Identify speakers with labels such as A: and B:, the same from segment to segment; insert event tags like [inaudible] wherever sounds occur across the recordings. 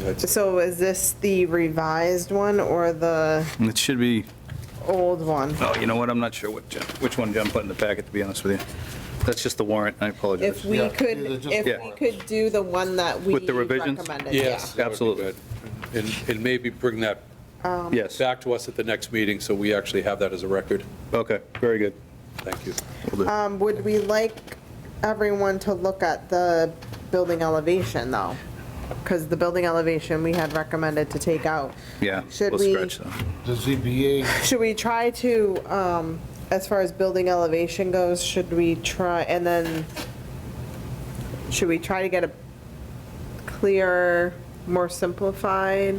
A: That's-
B: So is this the revised one or the
C: It should be,
B: old one?
C: oh, you know what, I'm not sure what, Jim- which one Jim put in the packet, to be honest with you. That's just the warrant, I apologize.
B: If we
A: Yeah,
B: could,
A: these are just
B: if we
A: warrants.
B: could do the one that we
C: With the revisions?
B: recommended.
D: Yes, that would be
C: Absolutely.
D: good. And, and maybe bring that
B: Um,
C: Yes,
D: back to us at the next meeting, so we actually have that as a record.
C: okay, very good.
D: Thank you.
C: Will do.
B: yeah. Um, Would we like everyone to look at the building elevation, though? Because the building elevation we had recommended to take out.
C: Yeah,
B: Should
C: we'll
B: we-
C: scratch that.
A: The ZBA,
B: Should we try to, um, as far as building elevation goes, should we try, and then, should we try to get a clearer, more simplified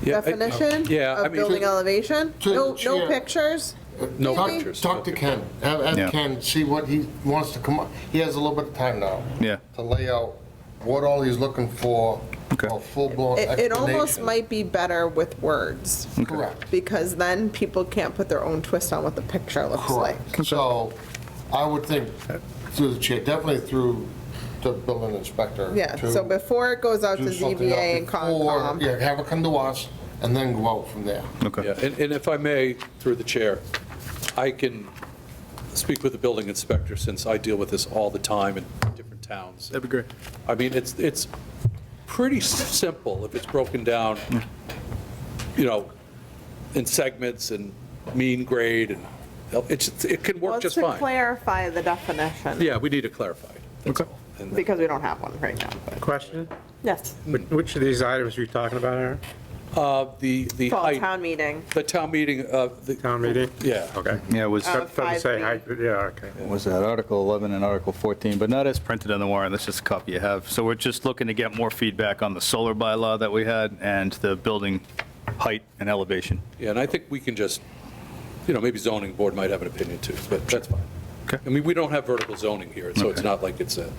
D: Yeah, I-
B: definition
D: Yeah, I
B: of
D: mean-
B: building elevation?
A: To the
B: No, no
A: chair.
B: pictures?
D: No
B: Talk-
D: pictures.
A: talk to Ken, have,
C: Yeah.
A: have Ken, see what he wants to come up, he has a little bit of time now.
C: Yeah.
A: To lay out what all he's looking for,
C: Okay.
A: a full-blown
B: It,
A: explanation.
B: it almost might be better with words,
A: Correct.
B: because then people can't put their own twist on what the picture looks like.
A: Correct. So I would think through the chair, definitely through the building inspector.
B: Yeah,
A: to
B: so before it goes out to
A: do something
B: ZBA and
A: up before-
B: Concom.
A: Yeah, have it come to us and then go out from there.
C: Okay,
D: Yeah, and, and if I may, through the chair, I can speak with the building inspector, since I deal with this all the time in different towns.
C: that'd be great.
D: I mean, it's, it's pretty s- simple if it's broken down, you know, in segments and mean grade, and it's, it can work just
B: Well, to
D: fine.
B: clarify the definition.
D: Yeah, we need to clarify it, that's
C: Okay.
D: all. And-
B: Because we don't have one right now, but,
E: Question?
B: yes.
E: Which- Which of these items are you talking about, Aaron?
D: Uh, The, the
B: Fall
D: height,
B: town meeting.
D: the town meeting, uh, the,
E: Town meeting?
D: yeah.
E: Okay.
C: Yeah, it was,
B: Uh,
E: Doesn't say height, but yeah, okay.
C: was that Article 11 and Article 14, but not as printed on the warrant, that's just a copy you have. So we're just looking to get more feedback on the solar bylaw that we had and the building height and elevation.
D: Yeah, and I think we can just, you know, maybe zoning board might have an opinion too, but that's fine.
C: Okay.
D: I mean, we don't have vertical zoning here, so it's
C: Okay.
D: not like it's a,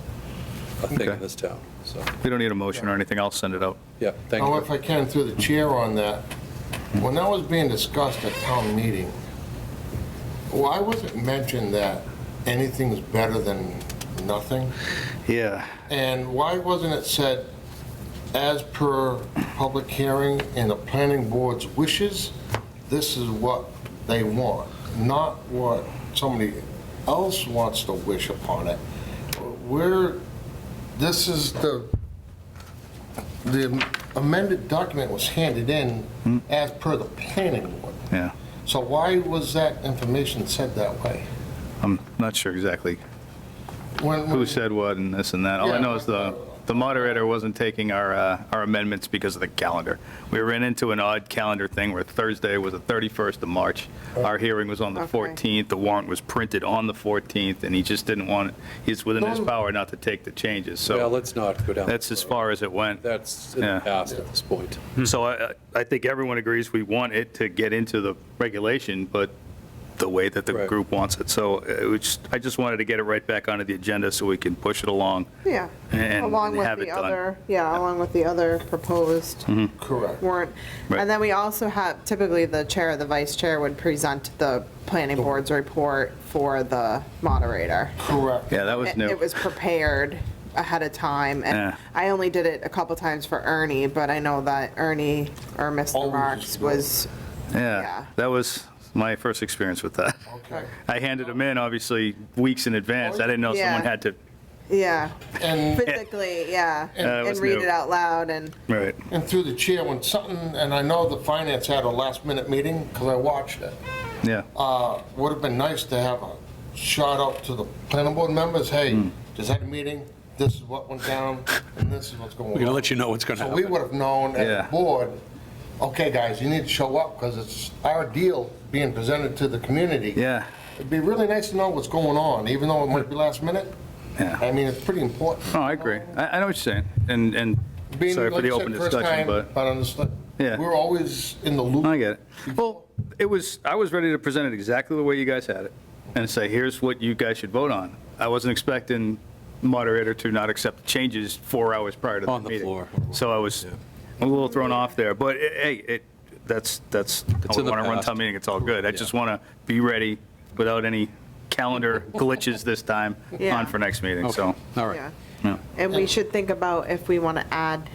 D: a thing
C: Okay.
D: in this town, so,
C: We don't need a motion or anything, I'll send it out.
D: yeah, thank
A: Now,
D: you.
A: if I can, through the chair on that, when that was being discussed at town meeting, why was it mentioned that anything's better than nothing?
C: Yeah.
A: And why wasn't it said, as per public hearing and the planning board's wishes, this is what they want, not what somebody else wants to wish upon it? We're, this is the, the amended document was handed in as per the planning board.
C: Hmm. Yeah,
A: So why was that information said that way?
C: I'm not sure exactly
A: When-
C: who
A: when-
C: said what and this and that. All I know is the, the moderator wasn't taking our, uh, our amendments because of the calendar. We ran into an odd calendar thing where Thursday was the 31st of March. Our hearing was on the
B: Oh. Okay.
C: 14th, the warrant was printed on the 14th, and he just didn't want, he's within his
A: No.
C: power not to take the changes,
D: Well,
C: so
D: let's not go down.
C: that's
D: that
C: as
D: road.
C: far as it went.
D: That's in
C: Yeah.
D: the past at this point.
C: So I, I think everyone agrees we want it to get into the regulation, but the way that the
D: Right.
C: group wants it. So it was just- I just wanted to get it right back onto the agenda so we can push it along.
B: Yeah.
C: And
B: Along with
C: have it
B: the
C: done.
B: other, yeah, along with the other proposed
A: Correct.
B: warrant.
C: Right.
B: And then we also have, typically the chair or the vice chair would present the planning
C: Oh.
B: board's report for the moderator.
A: Correct.
C: Yeah, that was
B: It
C: new.
B: it was prepared ahead of time,
C: Yeah.
B: and I only did it a couple times for Ernie, but I know that Ernie or Mr.
A: Always
B: Marks
A: is-
B: was, yeah.
C: Yeah, that was my first experience with that.
A: Okay.
C: I handed them in, obviously, weeks in advance. I didn't know
B: Yeah.
C: someone had to,
B: yeah,
A: And
B: physically, yeah,
C: Uh, it
B: and
C: was
B: read
C: new.
B: it out loud, and,
C: right,
A: And through the chair, when something, and I know the finance had a last-minute meeting, because I watched it,
C: yeah.
A: uh, would have been nice to have a shout out to the planning board members,
C: Hmm.
A: hey, just had a meeting, this is what went down, and this is what's going on.
D: We're gonna let you know what's gonna
A: So we
D: happen.
A: would have known
C: Yeah.
A: as a board, okay, guys, you need to show up, because it's our deal being presented to the community.
C: Yeah,
A: It'd be really nice to know what's going on, even though it might be last minute.
C: yeah.
A: I mean, it's pretty important.
C: No, Oh, I agree. I, I know what you're saying, and, and
A: Being,
C: sorry for
A: like
C: the
A: you said,
C: open
A: first
C: discussion,
A: time,
C: but.
A: But I understand.
C: Yeah.
A: We're always in the loop.
C: I get it. Well, it was, I was ready to present it exactly the way you guys had it and say, here's what you guys should vote on. I wasn't expecting moderator to not accept changes four hours prior to the
D: On the
C: meeting.
D: floor.
C: So I was a little thrown off there, but eh, hey, it, that's, that's,
D: It's
C: I
D: in the
C: want to run
D: past.
C: town meeting, it's all good. I
D: Yeah.
C: just want to be ready without any calendar [laughs] glitches this time
B: Yeah.
C: on for next meeting, so.
D: All right.
B: yeah.
C: yeah.
B: And we should think about if we want to add